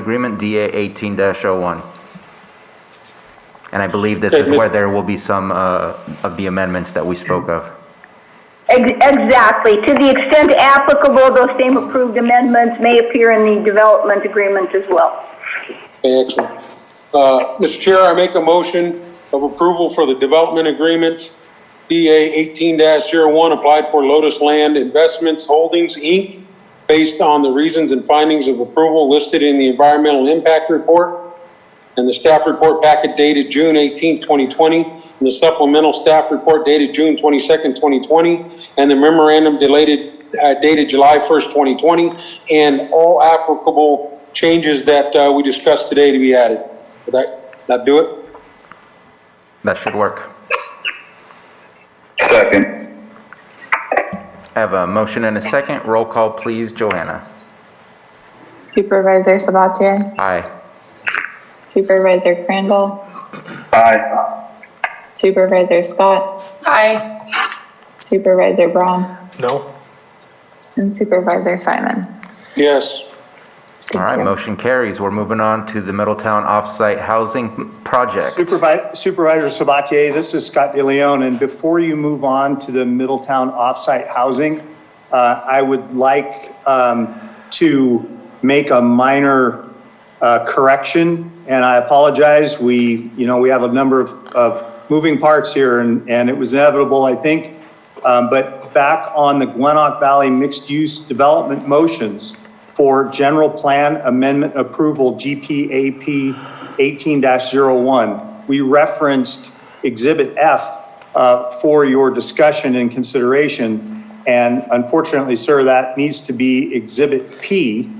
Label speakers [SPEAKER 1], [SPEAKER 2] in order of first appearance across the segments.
[SPEAKER 1] Agreement DA 18-01. And I believe this
[SPEAKER 2] Okay,
[SPEAKER 1] is
[SPEAKER 2] Mr.
[SPEAKER 1] where there will be some uh, of the amendments that we spoke of.
[SPEAKER 3] Ex- Exactly. To the extent applicable, those same approved amendments may appear in the development agreement as well.
[SPEAKER 2] Okay, excellent. Uh, Mr. Chair, I make a motion of approval for the development agreement DA eighteen one applied for Lotus Land Investments Holdings, Inc., based on the reasons and findings of approval listed in the environmental impact report and the staff report packet dated June 18, twenty twenty, and the supplemental staff report dated June twenty-second, twenty twenty, and the memorandum delated, uh, dated July first, twenty twenty, and all applicable changes that, uh, we discussed today to be added. Would that, that do it?
[SPEAKER 1] That should work.
[SPEAKER 4] Second.
[SPEAKER 1] I have a motion and a second. Roll call, please. Joanna?
[SPEAKER 5] Supervisor Sabatier?
[SPEAKER 1] Aye.
[SPEAKER 5] Supervisor Crandall?
[SPEAKER 4] Aye.
[SPEAKER 5] Supervisor Scott?
[SPEAKER 6] Aye.
[SPEAKER 5] Supervisor Braun?
[SPEAKER 7] No.
[SPEAKER 5] And Supervisor Simon?
[SPEAKER 2] Yes.
[SPEAKER 1] All right, motion carries. We're moving on to the Middletown Offsite Housing Project.
[SPEAKER 8] Supervi- Supervisor Sabatier, this is Scott DeLeon, and before you move on to the Middletown offsite housing, uh, I would like um, to make a minor uh, correction, and I apologize. We, you know, we have a number of, of moving parts here, and, and it was inevitable, I think. Um, But back on the Glenrock Valley mixed-use development motions for general plan amendment approval, GPAP 18-01, we referenced Exhibit F uh, for your discussion and consideration. And unfortunately, sir, that needs to be Exhibit P.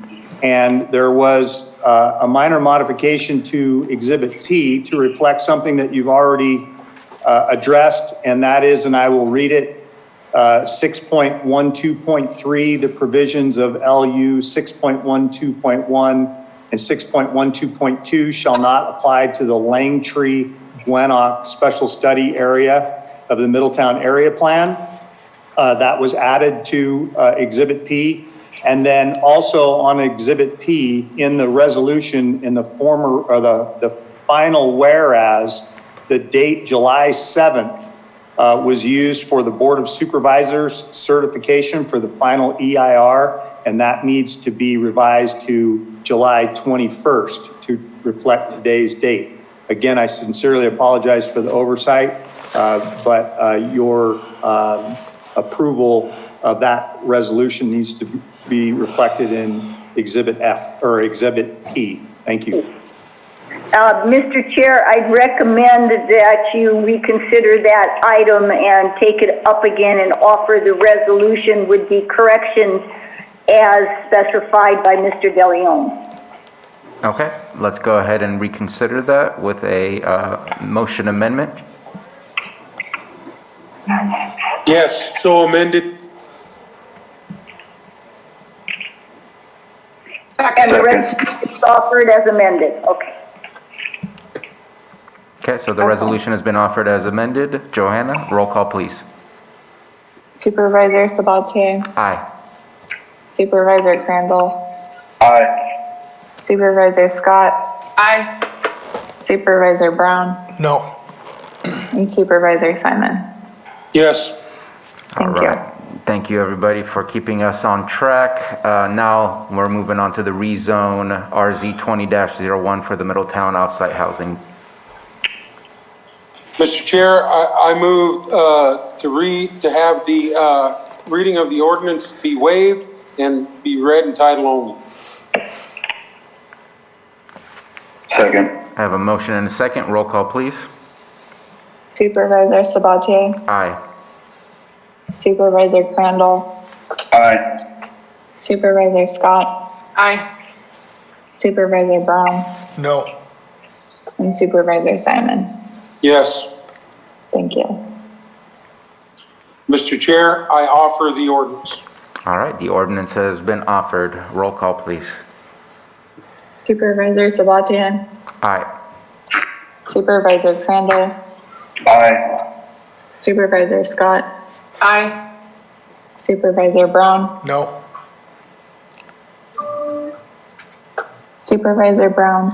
[SPEAKER 8] And there was uh, a minor modification to Exhibit T to reflect something that you've already uh, addressed, and that is, and I will read it, uh, 6.12.3, the provisions of LU 6.12.1 and 6.12.2 shall not apply to the Langtree Gwinoc Special Study Area of the Middletown Area Plan. Uh, That was added to uh, Exhibit P. And then also on Exhibit P, in the resolution, in the former, or the, the final whereas, the date July 7th uh, was used for the Board of Supervisors certification for the final EIR, and that needs to be revised to July 21st to reflect today's date. Again, I sincerely apologize for the oversight, uh, but uh, your um, approval of that resolution needs to be reflected in Exhibit F, or Exhibit P. Thank you.
[SPEAKER 3] Uh, Mr. Chair, I'd recommend that you reconsider that item and take it up again and offer the resolution with the corrections as specified by Mr. DeLeon.
[SPEAKER 1] Okay, let's go ahead and reconsider that with a uh, motion amendment.
[SPEAKER 2] Yes, so amended.
[SPEAKER 3] And the
[SPEAKER 6] Second.
[SPEAKER 3] resolution is offered as amended. Okay.
[SPEAKER 1] Okay, so the resolution has been offered as amended. Johanna, roll call, please.
[SPEAKER 5] Supervisor Sabatier?
[SPEAKER 1] Aye.
[SPEAKER 5] Supervisor Crandall?
[SPEAKER 4] Aye.
[SPEAKER 5] Supervisor Scott?
[SPEAKER 6] Aye.
[SPEAKER 5] Supervisor Brown?
[SPEAKER 7] No.
[SPEAKER 5] And Supervisor Simon?
[SPEAKER 2] Yes.
[SPEAKER 1] All
[SPEAKER 5] Thank you.
[SPEAKER 1] right. Thank you, everybody, for keeping us on track. Uh, Now, we're moving on to the rezone RZ 20-01 for the Middletown offsite housing.
[SPEAKER 2] Mr. Chair, I, I move, uh, to read, to have the, uh, reading of the ordinance be waived and be read in title only.
[SPEAKER 4] Second.
[SPEAKER 1] I have a motion and a second. Roll call, please.
[SPEAKER 5] Supervisor Sabatier?
[SPEAKER 1] Aye.
[SPEAKER 5] Supervisor Crandall?
[SPEAKER 4] Aye.
[SPEAKER 5] Supervisor Scott?
[SPEAKER 6] Aye.
[SPEAKER 5] Supervisor Brown?
[SPEAKER 7] No.
[SPEAKER 5] And Supervisor Simon?
[SPEAKER 2] Yes.
[SPEAKER 5] Thank you.
[SPEAKER 2] Mr. Chair, I offer the ordinance.
[SPEAKER 1] All right, the ordinance has been offered. Roll call, please.
[SPEAKER 5] Supervisor Sabatier?
[SPEAKER 1] Aye.
[SPEAKER 5] Supervisor Crandall?
[SPEAKER 4] Aye.
[SPEAKER 5] Supervisor Scott?
[SPEAKER 6] Aye.
[SPEAKER 5] Supervisor Brown?
[SPEAKER 7] No.
[SPEAKER 5] Supervisor Brown?